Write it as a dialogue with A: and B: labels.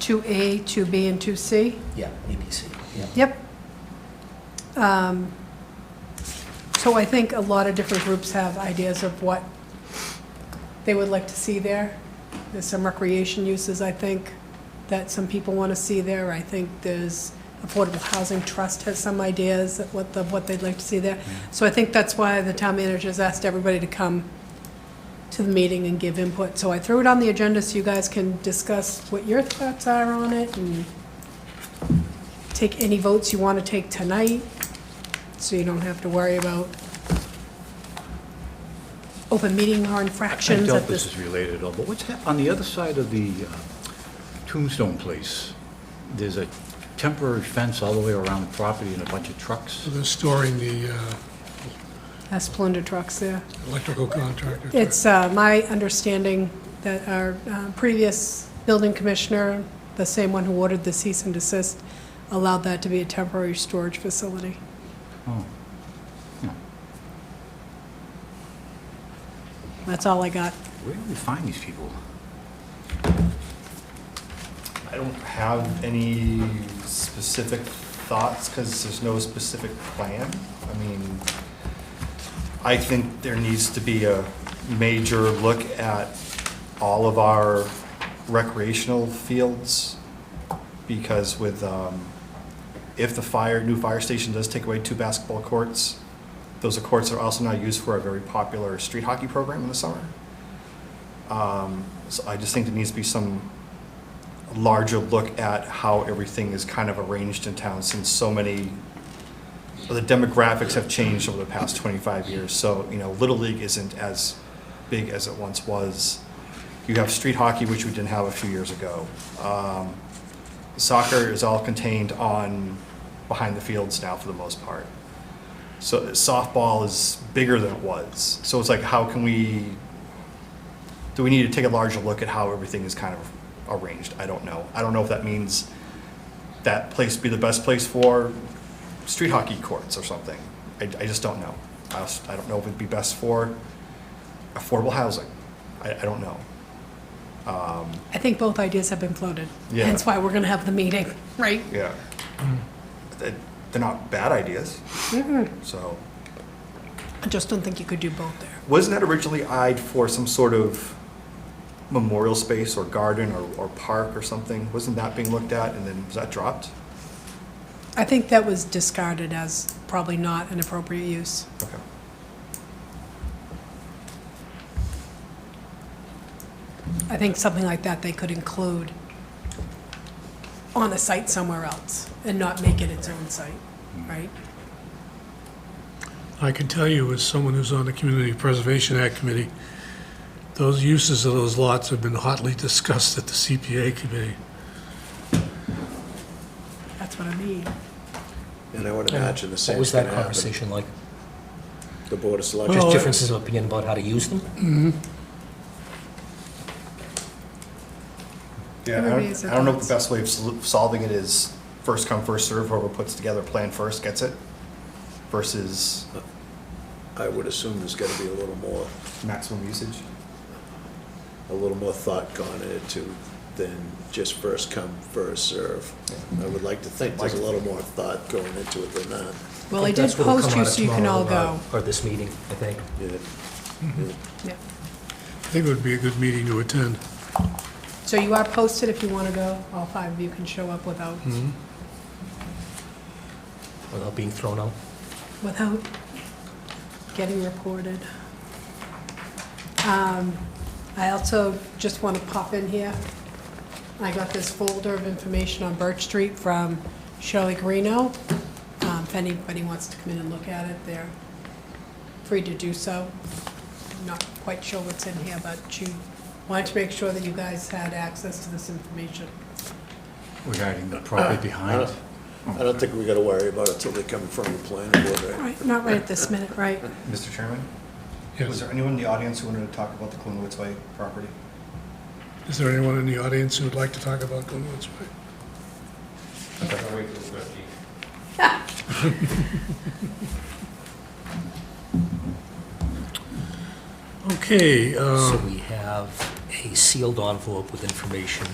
A: 2A, 2B, and 2C?
B: Yeah, ABC, yeah.
A: Yep. Um, So I think a lot of different groups have ideas of what they would like to see there. There's some recreation uses, I think, that some people want to see there. I think there's Affordable Housing Trust has some ideas of what, of what they'd like to see there. So I think that's why the town manager's asked everybody to come to the meeting and give input. So I threw it on the agenda so you guys can discuss what your thoughts are on it and take any votes you want to take tonight, so you don't have to worry about open meeting law
C: I
A: infractions
C: doubt
A: at
C: this
A: this.
C: is related at all, but what's hap, on the other side of the uh, Tombstone Place, there's a temporary fence all the way around the property and a bunch of trucks.
D: So They're storing the uh,
A: Has plunder trucks there.
D: electrical contractor.
A: It's uh, my understanding that our uh, previous building commissioner, the same one who ordered the cease and desist, allowed that to be a temporary storage facility.
C: Oh,
A: That's all I got.
C: where do we find these people?
E: I don't have any specific thoughts, because there's no specific plan. I mean, I think there needs to be a major look at all of our recreational fields, because with, um, if the fire, new fire station does take away two basketball courts, those courts are also now used for a very popular street hockey program in the summer. Um, So I just think there needs to be some larger look at how everything is kind of arranged in town since so many, the demographics have changed over the past 25 years. So, you know, Little League isn't as big as it once was. You have street hockey, which we didn't have a few years ago. Um, Soccer is all contained on, behind the fields now for the most part. So softball is bigger than it was. So it's like, how can we do we need to take a larger look at how everything is kind of arranged? I don't know. I don't know if that means that place be the best place for street hockey courts or something. I, I just don't know. I, als- I don't know if it'd be best for affordable housing. I, I don't know.
A: I think both ideas have been floated.
E: Yeah.
A: That's why we're going to have the meeting, right?
E: Yeah. They- Mm-hmm. They're not bad ideas. So,
A: I just don't think you could do both there.
E: wasn't that originally eyed for some sort of memorial space or garden or, or park or something? Wasn't that being looked at and then was that dropped?
A: I think that was discarded as probably not an appropriate use.
E: Okay.
A: I think something like that they could include on a site somewhere else and not make it its own site, right?
D: I can tell you, as someone who's on the Community Preservation Act Committee, those uses of those lots have been hotly discussed at the CPA committee.
A: That's what I mean.
F: And I would imagine the
B: What
F: same
B: was
F: is going
B: that
F: to happen.
B: conversation like?
F: The Board of Selectmen.
B: Just differences of opinion about how to use them?
E: Yeah, I
A: Everybody has
E: don't,
A: their
E: I don't know if
A: thoughts.
E: the best way of sol- solving it is first come, first serve. whoever puts together a plan first gets it versus
F: I would assume there's got to be a little more,
E: maximum usage.
F: a little more thought gone into than just first come, first serve. I would like to think there's a little more thought going into it than that.
A: Well, I
B: think
A: did
B: that's what'll
A: post
B: come
A: you
B: out of
A: so you can all
B: tomorrow,
A: go.
B: uh, Or this meeting, I think.
F: Yeah.
A: Yeah.
D: I think it would be a good meeting to attend.
A: So you are posted if you want to go. All five of you can show up without,
B: Hmm. without being thrown out.
A: without getting reported. Um, I also just want to pop in here. I got this folder of information on Birch Street from Shirley Greeno. Um, If anybody wants to come in and look at it, they're free to do so. Not quite sure what's in here, but she wanted to make sure that you guys had access to this information.
C: Regarding the property behind?
F: I don't think we got to worry about it till they come in front of the planning board, right?
A: Right, not right at this minute, right?
E: Mr. Chairman, was
D: Yes.
E: there anyone in the audience who wanted to talk about the Clunwoods Way property?
D: Is there anyone in the audience who would like to talk about Glenwood's Way? Okay, um,
A: Oh.
D: um,
B: So we have a sealed envelope with information